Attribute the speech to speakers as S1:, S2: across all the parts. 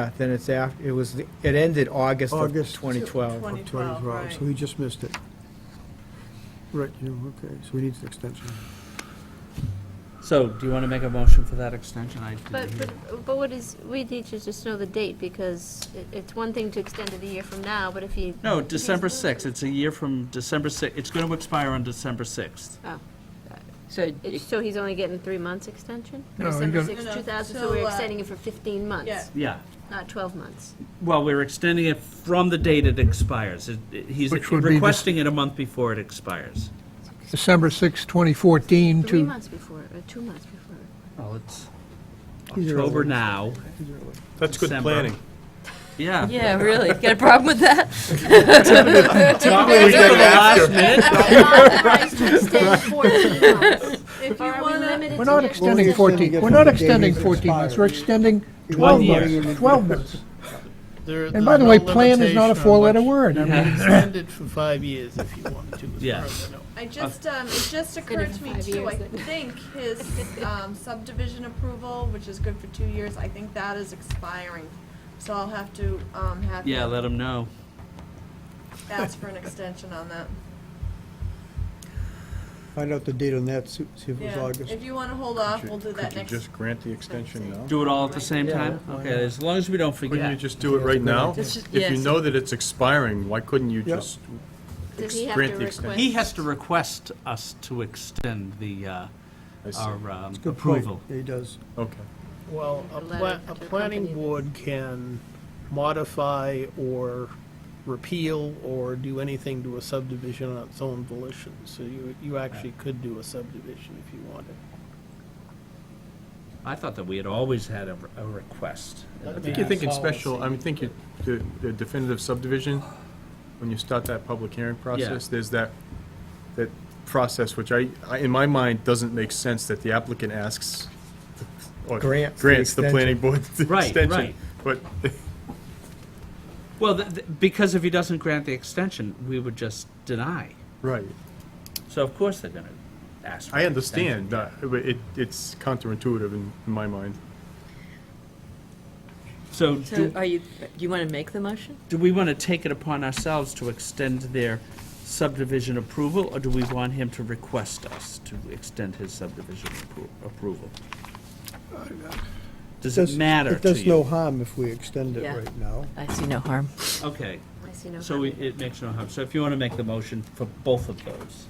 S1: Uh, Then it's after, it was, it ended August of
S2: August.
S1: 2012.
S3: 2012, right.
S2: So he just missed it. Right, you, okay, so he needs an extension.
S4: So, do you want to make a motion for that extension? I
S5: But,
S4: didn't hear.
S5: but, but what is, we need to just know the date, because it, it's one thing to extend it a year from now, but if you.
S4: No, December
S5: Here's the-
S4: 6th, it's a year from December 6th, it's going to expire on December 6th.
S6: So,
S5: it's- So he's only getting three months extension?
S7: No, he
S5: December
S7: got-
S5: sixth,
S3: No, no,
S5: two thousand,
S3: so,
S5: so we're
S3: uh,
S5: extending it for fifteen
S3: Yeah.
S5: months,
S4: Yeah,
S5: not twelve months.
S4: well, we're extending it from the date it expires. It- it- He's
S7: Which would be this-
S4: requesting it a month before it expires.
S7: December 6, 2014
S5: Three
S7: to,
S5: months before, or two months before.
S4: Well, it's
S2: He's early.
S4: October now.
S8: That's good
S4: December.
S8: planning.
S4: Yeah.
S6: yeah, really, got a problem with that?
S8: Typically, we get it after.
S5: Authorized to extend fourteen months.
S3: If you
S5: Or are we
S3: wanna,
S5: limited
S7: we're
S5: to
S7: not
S5: next
S7: extending
S5: year?
S2: extending it
S7: 14, we're
S2: from
S7: not
S2: the day
S7: extending
S2: it
S7: 14 months, we're
S2: expires.
S7: extending
S2: He
S7: 12
S2: was
S4: year.
S2: running in the-
S7: months, 12 months.
S9: There-
S7: And
S9: there's
S7: by the way,
S9: no
S7: plan is not a
S9: limitation on
S7: four-letter
S9: what-
S7: word. I
S9: You
S7: mean,
S9: can extend it for five years if you want to. as
S4: Yeah.
S9: far as I know.
S3: I just, um, it just occurred to me
S5: five
S3: too, I
S5: years.
S3: think his um, subdivision approval, which is good for two years, I think that is expiring. So I'll have to, um, have
S4: Yeah, let
S3: him
S4: him know.
S3: ask for an extension on that.
S2: Find out the date on that, see see if it was
S3: Yeah,
S2: August.
S3: if you wanna hold off, we'll do that
S8: Could you
S3: next.
S8: just grant the extension now?
S4: Do it all at the same
S7: Yeah,
S4: time?
S7: why
S4: Okay,
S7: not?
S4: as long as we don't
S8: Couldn't you
S4: forget.
S8: just do it right now?
S6: It's just-
S8: If you
S6: yes.
S8: know that it's expiring, why couldn't you
S2: Yeah.
S8: just
S5: Does he have
S8: grant
S5: to
S8: the
S5: request-
S8: extension?
S4: He has to request us to extend the, uh,
S8: I see.
S4: our um,
S2: Good point.
S4: approval.
S2: Yeah, he does.
S8: Okay.
S9: Well,
S5: A
S9: a
S5: letter
S9: pla-
S5: to
S9: a
S5: the
S9: planning
S5: company.
S9: board can modify or repeal or do anything to a subdivision on its own volition. So you, you actually could do a subdivision if you wanted.
S4: I thought that we had always had a a request.
S9: I
S8: I think you're thinking special, I mean, think you, the the definitive subdivision, when you start that public hearing process, there's that, that process which I, I- in my mind, doesn't make sense that the applicant asks or
S1: Grants the
S8: grants the
S1: extension.
S8: planning board the
S4: Right,
S8: extension.
S4: right.
S8: But
S4: Well, th- th- because if he doesn't grant the extension, we would just deny.
S8: Right,
S4: So of course they're going to ask. for
S8: I
S4: an
S8: understand,
S4: extension.
S8: uh, but it, it's counterintuitive in, in my mind.
S4: So
S6: So
S4: do,
S6: are you, you want to make the motion?
S4: do we want to take it upon ourselves to extend their subdivision approval, or do we want him to request us to extend his subdivision appro- approval? Does it
S2: Does-
S4: matter
S2: It
S4: to
S2: does no
S4: you?
S2: harm if we extend it
S6: Yeah.
S2: right now.
S6: I see no harm.
S4: Okay,
S5: I see no
S4: so
S5: harm.
S4: we- it makes no harm. So if you want to make the motion for both of those.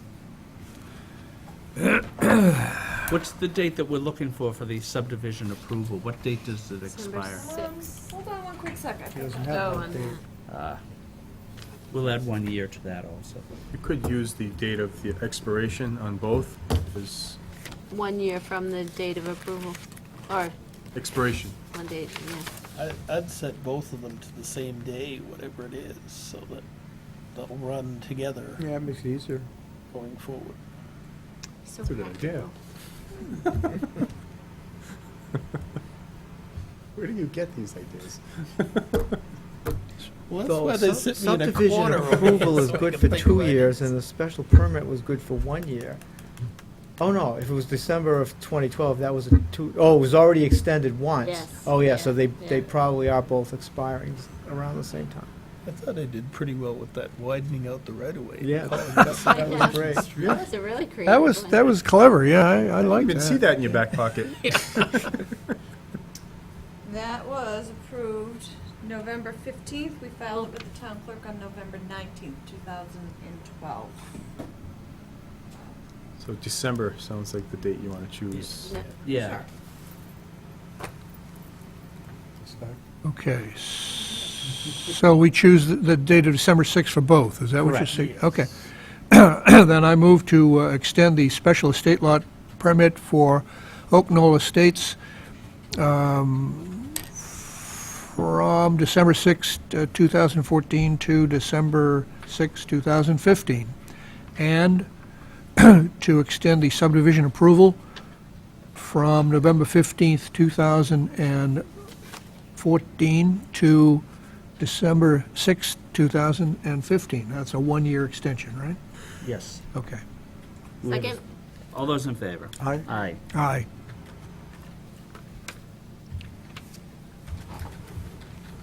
S4: What's the date that we're looking for for the subdivision approval? What date does it
S5: December
S4: expire?
S5: sixth.
S3: Um, Hold on one quick second.
S2: He doesn't
S5: Oh,
S2: have
S5: on
S2: that date.
S5: that.
S4: We'll add one year to that also.
S8: You could use the date of the expiration on both, as
S5: One year from the date of approval, or
S8: expiration.
S5: one date, yeah.
S9: I, I'd set both of them to the same day, whatever it is, so that they'll run together
S2: Yeah, it makes it easier.
S9: going forward.
S5: So
S8: That's a good idea.
S5: practical.
S8: Where do you get these ideas?
S9: Well, that's
S2: So
S9: why they sit me in a
S2: subdivision
S9: corner. over
S1: Approval
S9: here
S1: is
S9: so I
S1: good
S9: can
S1: for
S9: think
S1: two
S9: about it.
S1: years, and the special permit was good for one year. Oh, no, if it was December of 2012, that was a two, oh, it was already extended once.
S5: Yes,
S1: Oh, yeah, so
S5: yeah,
S1: they, they
S5: yeah.
S1: probably are both expiring around the same time.
S9: I thought I did pretty well with that widening out the right of way.
S1: Yeah.
S5: I know.
S1: was great.
S5: That was a really creative.
S7: that was,
S5: one.
S7: that was clever, yeah, I I
S8: I
S7: like
S8: didn't even see
S7: that.
S8: that in your back pocket.
S3: That was approved November fifteenth, we filed it with the town clerk on November nineteenth, two thousand and twelve.
S8: So December sounds like the date you want to choose.
S5: Yeah.
S4: Yeah.
S7: Okay, s- so we choose the- the date of December 6 for both, is that what you're
S4: Correct.
S7: saying? Okay. Then I move to uh, extend the special estate lot permit for Oak Knoll Estates um, from December 6, uh, 2014 to December 6, 2015, and to extend the subdivision approval from November 15, 2000 14 to December 6, 2015. That's a one-year extension, right?
S4: Yes.
S7: Okay.
S5: Second,
S4: All those in favor?
S2: Aye.
S4: Aye.
S7: Aye.